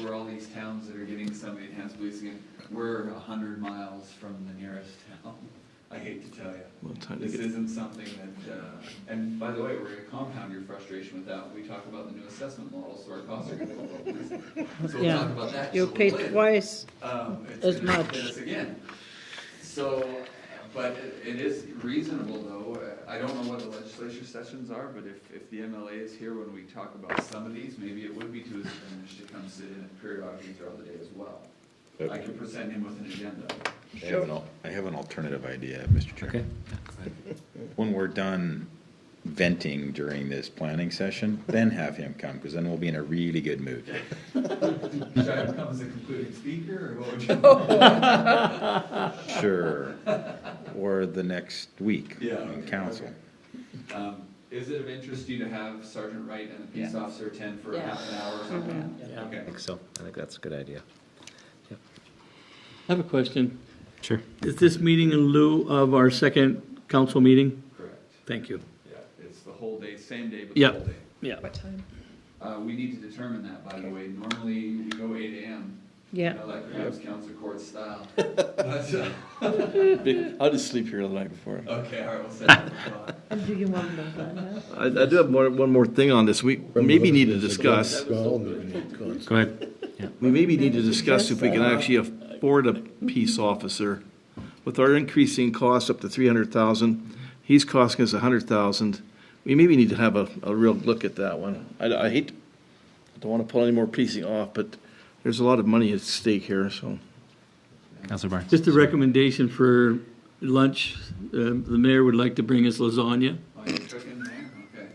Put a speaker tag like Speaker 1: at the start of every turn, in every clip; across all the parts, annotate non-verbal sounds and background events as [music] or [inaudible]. Speaker 1: for all these towns that are getting somebody that has police again, we're a hundred miles from the nearest town. I hate to tell you.
Speaker 2: Well, time to
Speaker 1: This
Speaker 2: get-
Speaker 1: isn't something that, uh, and by the way, we're gonna compound your frustration with that, when we talk about the new assessment model, so our costs are gonna go up. So we'll
Speaker 3: Yeah.
Speaker 1: talk about that
Speaker 3: You'll
Speaker 1: just a
Speaker 3: pay
Speaker 1: little later.
Speaker 3: twice.
Speaker 1: Um, it's
Speaker 3: As
Speaker 1: gonna
Speaker 3: much.
Speaker 1: hit us again. So, but it- it is reasonable though, Uh, I don't know what the legislature sessions are, but if, if the MLA is here when we talk about some of these, maybe it would be to his advantage to come sit in and periodically throughout the day as well. I can present him with an agenda.
Speaker 4: I have an, al- I have an alternative idea, Mr. Chairman. [laughs] When we're done venting during this planning session, then have him come, because then we'll be in a really good mood.
Speaker 1: Should I come as a concluding speaker or what would you?
Speaker 4: Sure. Or the next week
Speaker 1: Yeah,
Speaker 4: in
Speaker 1: okay,
Speaker 4: council.
Speaker 1: okay. Um, Is it of interest to you to have Sergeant Wright and the peace officer attend for
Speaker 3: Yeah.
Speaker 1: half an hour or something?
Speaker 3: Yeah.
Speaker 1: Okay.
Speaker 5: so. I think that's a good idea.
Speaker 2: I have a question.
Speaker 5: Sure.
Speaker 2: Is this meeting in lieu of our second council meeting?
Speaker 1: Correct.
Speaker 2: Thank you.
Speaker 1: Yeah, it's the whole day, same day, but the
Speaker 2: Yeah.
Speaker 1: whole day.
Speaker 2: Yeah.
Speaker 1: Uh, we need to determine that, by the way. Normally, we go eight AM.
Speaker 3: Yeah.
Speaker 1: You know, Like perhaps council court [laughs] style. But, uh,
Speaker 2: I'll just sleep here the night before.
Speaker 1: Okay, all right, we'll set that aside.
Speaker 3: And do you want to know?
Speaker 6: I, I do have more, one more thing on this. We maybe need to discuss,
Speaker 5: Go ahead.
Speaker 6: we maybe need to discuss if we can actually afford a peace officer. With our increasing costs up to three hundred thousand, he's costing us a hundred thousand. We maybe need to have a, a real look at that one. I, I hate, I don't wanna pull any more piecing off, but there's a lot of money at stake here, so.
Speaker 5: Counselor Barnes.
Speaker 2: Just a recommendation for lunch. Uh, The mayor would like to bring us
Speaker 1: Oh,
Speaker 2: lasagna.
Speaker 1: you're cooking there? Okay.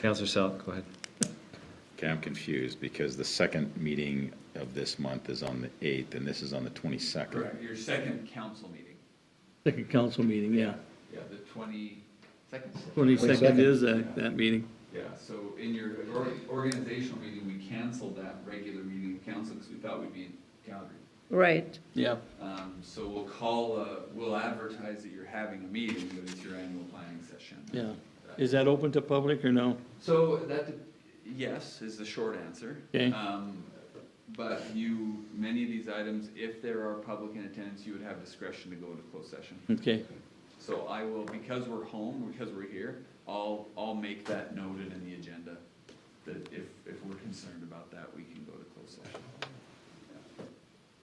Speaker 5: Counselor Sal, go ahead.
Speaker 4: Okay, I'm confused, because the second meeting of this month is on the eighth, and this is on the twenty-second.
Speaker 1: Correct, your second council meeting.
Speaker 2: Second council meeting, yeah.
Speaker 1: Yeah, the twenty-second.
Speaker 2: 22nd is that, that meeting.
Speaker 1: Yeah, so in your or- organizational meeting, we canceled that regular meeting of council because we thought we'd be in Calgary.
Speaker 3: Right.
Speaker 2: Yeah.
Speaker 1: Um, so we'll call, uh, we'll advertise that you're having a meeting, but it's your annual planning session.
Speaker 2: Yeah. Is that open to public or no?
Speaker 1: So that, yes, is the short answer.
Speaker 2: Okay.
Speaker 1: Um, But you, many of these items, if there are public in attendance, you would have discretion to go into closed session.
Speaker 2: Okay.
Speaker 1: So I will, because we're home, because we're here, I'll, I'll make that noted in the agenda, that if, if we're concerned about that, we can go to closed session.
Speaker 6: I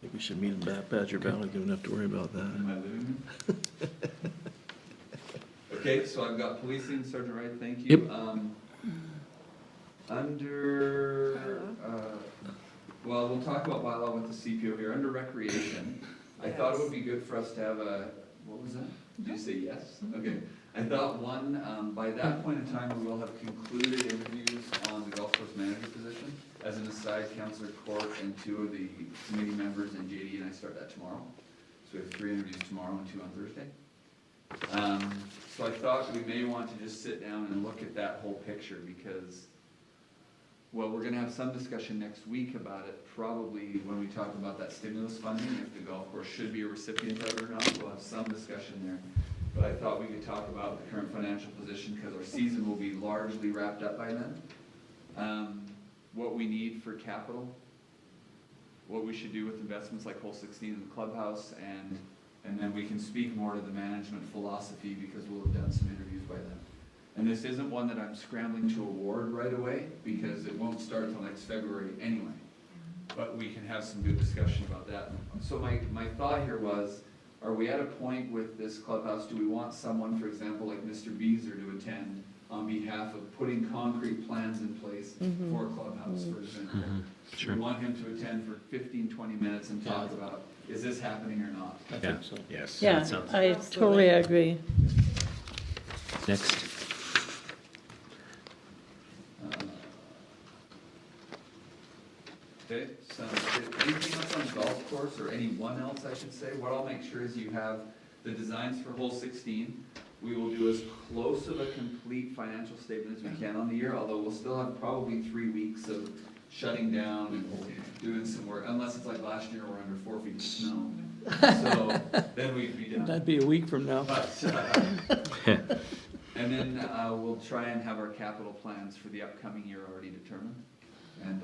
Speaker 6: think we should meet in Bad Badger Valley, we don't have to worry about
Speaker 1: In
Speaker 6: that.
Speaker 1: my living room. [laughs] Okay, so I've got policing, Sergeant Wright, thank you.
Speaker 2: Yep.
Speaker 1: Um, Under, uh, well, we'll talk about bylaw with the CPO here, under recreation, I thought it would be good for us to have a, what was that? Did you say yes? Okay, I thought one, um, by that point in time, we will have concluded interviews on the golf course manager position. As an aside, Counselor Court and two of the committee members and JD and I start that tomorrow. So we have three interviews tomorrow and two on Thursday. Um, so I thought we may want to just sit down and look at that whole picture because, well, we're gonna have some discussion next week about it, probably when we talk about that stimulus funding, if the golf course should be a recipient of it or not, we'll have some discussion there. But I thought we could talk about the current financial position because our season will be largely wrapped up by then. Um, what we need for capital, what we should do with investments like hole sixteen in the clubhouse and and then we can speak more to the management philosophy because we'll have done some interviews by then. And this isn't one that I'm scrambling to award right away because it won't start till next February anyway. But we can have some good discussion about that. So my, my thought here was, are we at a point with this clubhouse, do we want someone, for example, like Mr. Beazer to attend on behalf of putting concrete plans in place for a clubhouse, for example?
Speaker 5: Sure.
Speaker 1: We want him to attend for 15, 20 minutes and talk
Speaker 2: Yeah.
Speaker 1: about, is this happening or not?
Speaker 2: I
Speaker 5: Yeah.
Speaker 2: think so.
Speaker 4: Yes.
Speaker 3: Yeah,
Speaker 5: sounds-
Speaker 3: I totally agree.
Speaker 5: Next.
Speaker 1: Okay, so anything else on golf course or anyone else, I should say? What I'll make sure is you have the designs for hole sixteen. We will do as close of a complete financial statement as we can on the year, although we'll still have probably three weeks of shutting down and doing some work, unless it's like last year, we're under four feet of snow. So then we'd be done.
Speaker 2: That'd be a week from now.
Speaker 1: But, uh, and then uh, we'll try and have our capital plans for the upcoming year already determined, and